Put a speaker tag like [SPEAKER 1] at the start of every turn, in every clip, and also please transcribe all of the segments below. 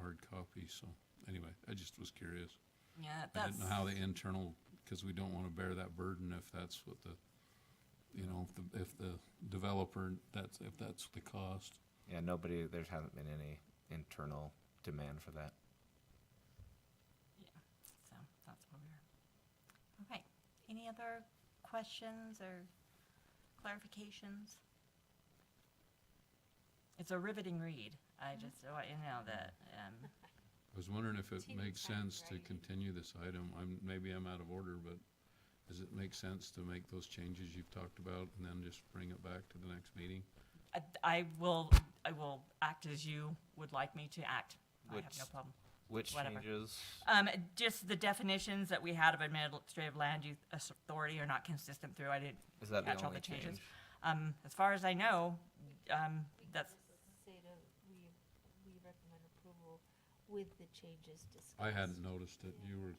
[SPEAKER 1] hard copy, so anyway, I just was curious.
[SPEAKER 2] Yeah,
[SPEAKER 1] I
[SPEAKER 2] that's,
[SPEAKER 1] didn't know how the internal, because we don't want to bear that burden if that's what the, you know, if the, if the developer, that's, if that's the cost.
[SPEAKER 3] Yeah, nobody, there hasn't been any internal demand for that.
[SPEAKER 2] yeah, so that's where we are. Okay, any other questions or clarifications? It's a riveting read. I just want you to know that, um,
[SPEAKER 1] I was wondering if it
[SPEAKER 4] Continue
[SPEAKER 1] makes
[SPEAKER 4] time,
[SPEAKER 1] sense to
[SPEAKER 4] right.
[SPEAKER 1] continue this item. I'm, maybe I'm out of order, but does it make sense to make those changes you've talked about and then just bring it back to the next meeting?
[SPEAKER 2] I, I will, I will act as you would like me to act. I have no
[SPEAKER 3] Which-
[SPEAKER 2] problem.
[SPEAKER 3] Which
[SPEAKER 2] Whatever.
[SPEAKER 3] changes?
[SPEAKER 2] Um, just the definitions that we had of administrative land use authority are not consistent through. I didn't
[SPEAKER 3] Is that
[SPEAKER 2] catch
[SPEAKER 3] the
[SPEAKER 2] all the
[SPEAKER 3] only
[SPEAKER 2] changes.
[SPEAKER 3] change?
[SPEAKER 2] Um, as far as I know, um, that's,
[SPEAKER 4] Say to, we, we recommend approval with the changes discussed.
[SPEAKER 1] I hadn't noticed it. You were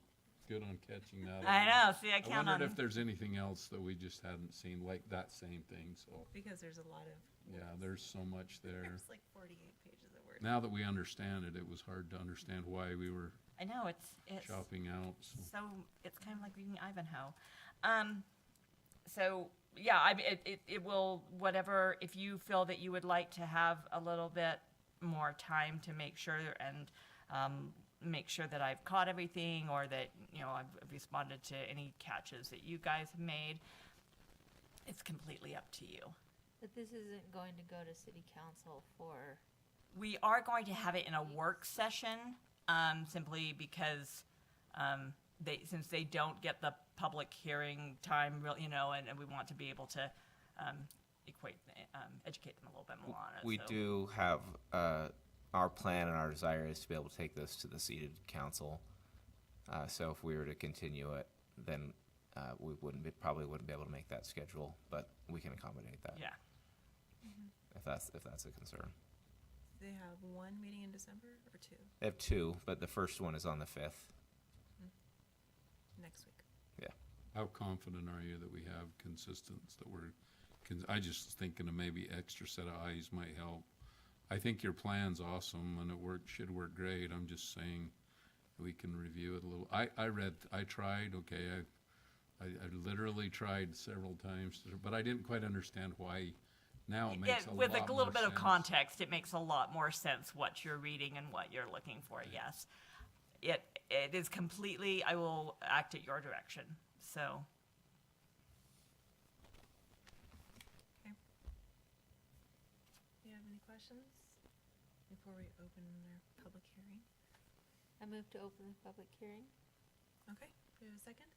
[SPEAKER 1] good on catching that.
[SPEAKER 2] I know, see, I
[SPEAKER 1] I
[SPEAKER 2] count
[SPEAKER 1] wondered
[SPEAKER 2] on,
[SPEAKER 1] if there's anything else that we just hadn't seen, like that same thing, so,
[SPEAKER 5] Because there's a lot of.
[SPEAKER 1] yeah,
[SPEAKER 5] words.
[SPEAKER 1] there's so much there.
[SPEAKER 5] There's like forty-eight pages of words.
[SPEAKER 1] Now that we understand it, it was hard to understand why we were
[SPEAKER 2] I know, it's, it's,
[SPEAKER 1] chopping out, so.
[SPEAKER 2] so, it's kind of like reading Ivanhoe. Um, so, yeah, I, mean, it, it, it will, whatever, if you feel that you would like to have a little bit more time to make sure and, um, make sure that I've caught everything or that, you know, I've responded to any catches that you guys have made, it's completely up to you.
[SPEAKER 4] But this isn't going to go to city council for,
[SPEAKER 2] We are going to have it in a work session, um, simply because, um, they, since they don't get the public hearing time, real, you know, and, and we want to be able to, um, equate, um, educate them a little bit more on it.
[SPEAKER 3] We
[SPEAKER 2] Uh, so-
[SPEAKER 3] do have, uh, our plan and our desire is to be able to take this to the seated council. Uh, so if we were to continue it, then, uh, we wouldn't be, probably wouldn't be able to make that schedule, but we can accommodate that.
[SPEAKER 2] Yeah,
[SPEAKER 3] If that's, if that's a concern.
[SPEAKER 5] They have one meeting in December or two
[SPEAKER 3] They have two, but the first one is on the fifth.
[SPEAKER 5] next week.
[SPEAKER 1] How confident are you that we have consistence, that we're, cons- I just was thinking of maybe extra set of eyes might help. I think your plan's awesome and it worked, should work great, I'm just saying we can review it a little. I, I read, I tried, okay, I, I, I literally tried several times, to- but I didn't quite understand why. Now it makes
[SPEAKER 2] It-
[SPEAKER 1] a lot more
[SPEAKER 2] with
[SPEAKER 1] sense.
[SPEAKER 2] a little bit of context, it makes a lot more sense what you're reading and what you're looking for, yes. It, it is completely, I will act at your direction, so.
[SPEAKER 5] Do you have any questions before we open our public hearing?
[SPEAKER 4] I move to open the public hearing.
[SPEAKER 5] Okay, do we have a second?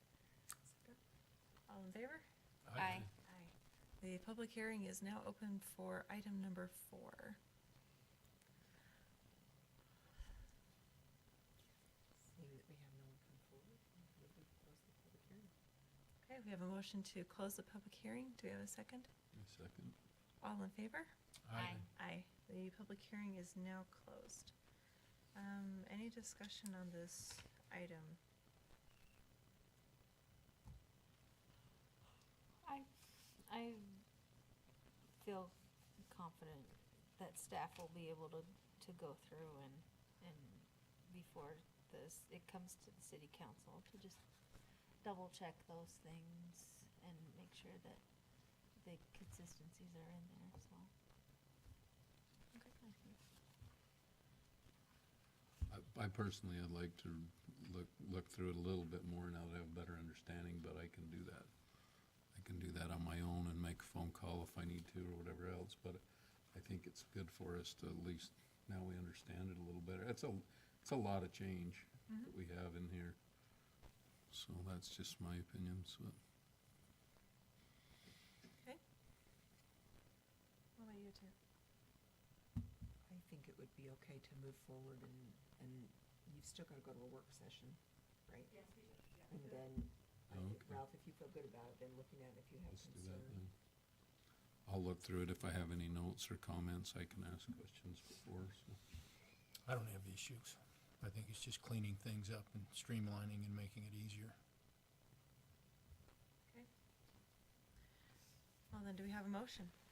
[SPEAKER 5] Second. All in favor?
[SPEAKER 4] Aye.
[SPEAKER 5] Aye. The public hearing is now open for item number four. Okay, we have a motion to close the public hearing. Do we have a second?
[SPEAKER 1] Second.
[SPEAKER 5] All in favor?
[SPEAKER 4] Aye.
[SPEAKER 5] Aye. The public hearing is now closed. Um, any discussion on this item?
[SPEAKER 4] I, I feel confident that staff will be able to, to go through and, and before this, it comes to the city council to just double check those things and make sure that the consistencies are in there, so. I think
[SPEAKER 1] I- I personally, I'd like to look, look through it a little bit more now that I have a better understanding, but I can do that. I can do that on my own and make a phone call if I need to or whatever else, but I think it's good for us to at least, now we understand it a little better. It's a, it's a lot of change that we have in here. So that's just my opinion, so.
[SPEAKER 5] What about you two?
[SPEAKER 6] I think it would be okay to move forward and, and you've still gotta go to a work session, right? Yes, we do. And then, I think,
[SPEAKER 1] Okay.
[SPEAKER 6] Ralph, if you feel good about it, then looking at it, if you have
[SPEAKER 1] Let's do that
[SPEAKER 6] concern.
[SPEAKER 1] then. I'll look through it. If I have any notes or comments, I can ask questions before, so.
[SPEAKER 7] I don't have issues. I think it's just cleaning things up and streamlining and making it easier.
[SPEAKER 5] Well, then, do we have a motion?